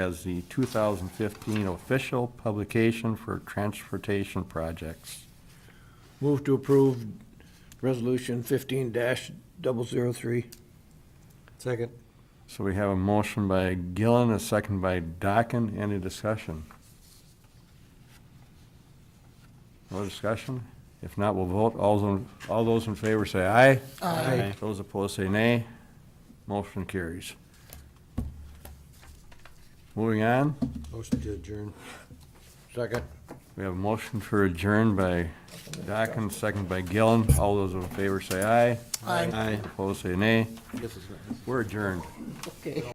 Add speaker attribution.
Speaker 1: as the 2015 official publication for transportation projects.
Speaker 2: Move to approve Resolution fifteen dash double zero three.
Speaker 3: Second.
Speaker 1: So we have a motion by Gillen, a second by Dockin. Any discussion? No discussion? If not, we'll vote. All those, all those in favor say aye.
Speaker 2: Aye.
Speaker 1: Those opposed say nay. Motion carries. Moving on,
Speaker 3: Motion to adjourn.
Speaker 2: Second.
Speaker 1: we have a motion for adjourn by Dockin, second by Gillen. All those in favor say aye.
Speaker 3: Aye.
Speaker 1: Opposed say nay.
Speaker 3: This is nice.
Speaker 1: We're adjourned.
Speaker 2: Okay.